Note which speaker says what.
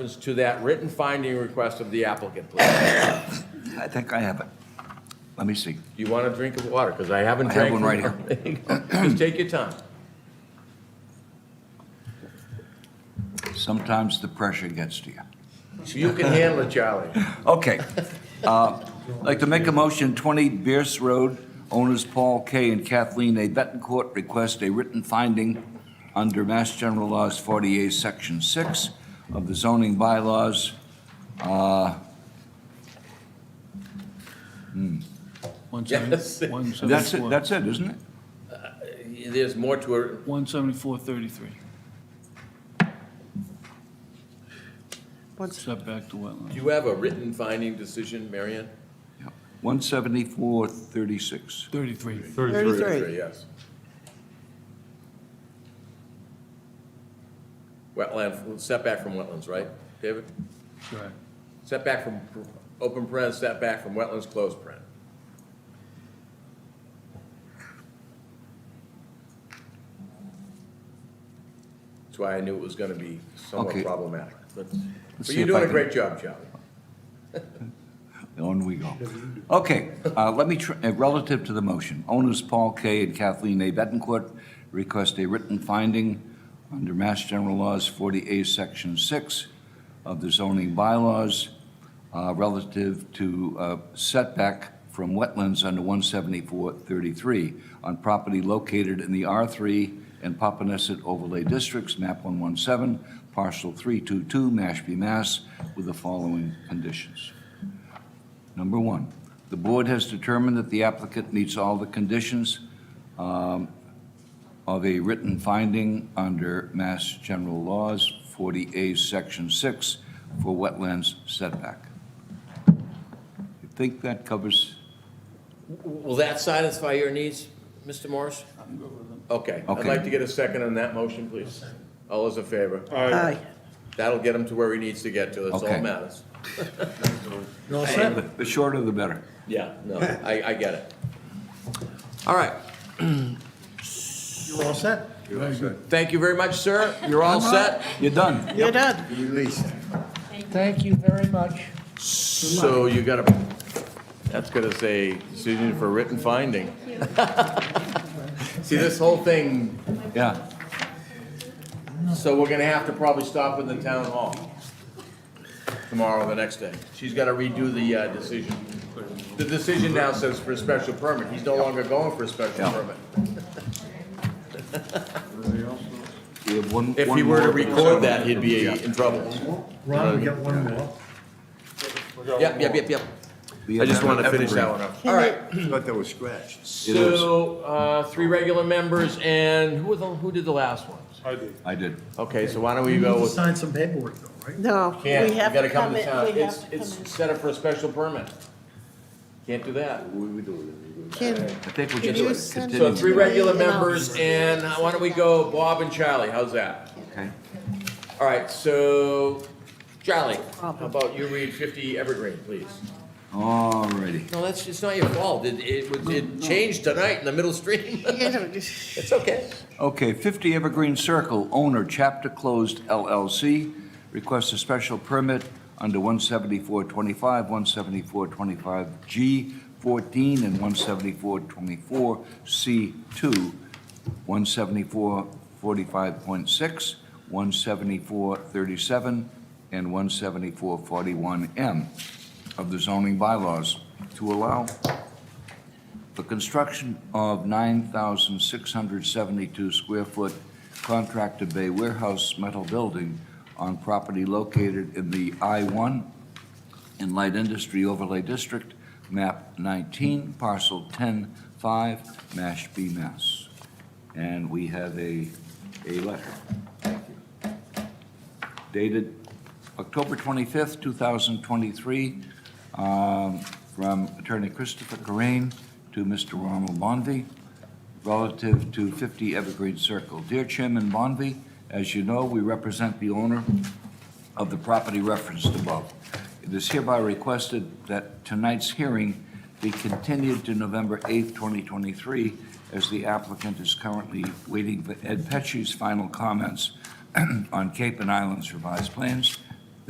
Speaker 1: reference to that written finding request of the applicant, please?
Speaker 2: I think I have it. Let me see.
Speaker 1: You want a drink of water, because I haven't
Speaker 2: I have
Speaker 1: drank.
Speaker 2: one right here.
Speaker 1: right here. Just take your time.
Speaker 2: Sometimes the pressure gets to you.
Speaker 1: You can handle it, Charlie.
Speaker 2: Okay. Uh, I'd Like to make a motion, 20 Bierce Road, owners Paul K. and Kathleen A. Betancourt request a written finding under Mass General Laws 48, Section 6 of the zoning bylaws. Uh,
Speaker 1: Yes.
Speaker 3: 174.
Speaker 2: That's it, that's it, isn't it?
Speaker 1: There's more to it.
Speaker 3: 17433, setback
Speaker 1: Do
Speaker 3: to wetland.
Speaker 1: you have a written finding decision, Marion?
Speaker 2: 17436.
Speaker 3: 33.
Speaker 4: 33.
Speaker 1: Yes. Wetland, setback from wetlands, right, David?
Speaker 3: Correct.
Speaker 1: Setback from pr- open paren, setback from wetlands, closed paren. That's why I knew it was gonna be somewhat
Speaker 2: Okay.
Speaker 1: problematic. But but
Speaker 2: see
Speaker 1: you're
Speaker 2: if I
Speaker 1: doing a
Speaker 2: can-
Speaker 1: great job, Charlie.
Speaker 2: On we go. Okay, uh, let me, tr- uh, relative to the motion, owners Paul K. and Kathleen A. Betancourt request a written finding under Mass General Laws 40A, Section 6 of the zoning bylaws uh, relative to uh, setback from wetlands under 17433 on property located in the R3 and Papaneset Overlay Districts, map 117, parcel 322, Mashpee, Mass, with the following conditions. Number one, the board has determined that the applicant meets all the conditions um, of a written finding under Mass General Laws 40A, Section 6, for wetlands setback. You think that covers,
Speaker 1: W- Will that satisfy your needs, Mr. Morris? Okay, I'd
Speaker 2: Okay.
Speaker 1: like to get a second on that motion, please. All those in favor?
Speaker 4: Aye.
Speaker 1: That'll get him to where he needs to get to, that's all
Speaker 2: Okay.
Speaker 1: that matters.
Speaker 2: the shorter the better.
Speaker 1: Yeah, no, I, I get it. All right,
Speaker 4: You all set?
Speaker 1: thank you very much, sir. You're all set?
Speaker 2: You're done.
Speaker 4: You're done.
Speaker 5: Thank you very much.
Speaker 1: So you got a, that's gonna say decision for written finding. See, this whole thing,
Speaker 2: Yeah.
Speaker 1: so we're gonna have to probably stop in the town hall tomorrow, or the next day. She's gotta redo the, uh, decision. The decision now says for a special permit, he's no longer going for a special
Speaker 2: Yeah.
Speaker 1: permit.
Speaker 2: We have one-
Speaker 1: If
Speaker 2: one
Speaker 1: he were to
Speaker 2: more.
Speaker 1: record that, he'd be in trouble.
Speaker 4: Ron, we got one more.
Speaker 1: Yep, yep, yep, yep.
Speaker 2: We
Speaker 1: I
Speaker 2: have
Speaker 1: just wanted to finish that
Speaker 2: evergreen.
Speaker 1: one up.
Speaker 4: All right.
Speaker 6: Thought that was scratched.
Speaker 1: So, uh, three regular members and who was, the- who did the last ones?
Speaker 2: I did.
Speaker 1: Okay, so why don't we go with?
Speaker 4: Sign some paperwork though, right?
Speaker 5: No, we
Speaker 1: Can't, you
Speaker 5: have
Speaker 1: gotta
Speaker 5: to
Speaker 1: come
Speaker 5: come
Speaker 1: to
Speaker 5: in,
Speaker 1: town.
Speaker 5: we have
Speaker 1: It's,
Speaker 5: to come in.
Speaker 1: it's set up for a special permit. Can't do that.
Speaker 5: Can,
Speaker 2: I think we
Speaker 5: Can
Speaker 2: just
Speaker 5: you
Speaker 2: like,
Speaker 5: send
Speaker 1: So
Speaker 2: continue.
Speaker 1: three
Speaker 5: Yeah.
Speaker 1: regular
Speaker 5: Yeah.
Speaker 1: members and uh, why don't we go Bob and Charlie? How's that?
Speaker 2: Okay.
Speaker 1: All right, so Charlie, how about you read fifty Evergreen, please?
Speaker 2: All righty.
Speaker 1: No, that's, it's not your fault. It, it, was- it changed tonight in the middle stream.
Speaker 5: you know,
Speaker 1: It's okay.
Speaker 2: Okay, 50 Evergreen Circle, owner Chapter Closed LLC, requests a special permit under 17425, 17425G14, and 17424C2, 17445.6, 17437, and 17441M of the zoning bylaws to allow the construction of 9,672 square foot contractor bay warehouse metal building on property located in the I-1 and Light Industry Overlay District, map 19, parcel 10-5, Mashpee, Mass. And we have a, a letter. Thank you dated October 25th, 2023, um, from Attorney Christopher Corain to Mr. Ronald Bonvy, relative to 50 Evergreen Circle. Dear Chairman Bonvy, as you know, we represent the owner of the property referenced above. It is hereby requested that tonight's hearing be continued to November 8th, 2023, as the applicant is currently waiting for Ed Pesci's final comments on Cape and Islands revised plans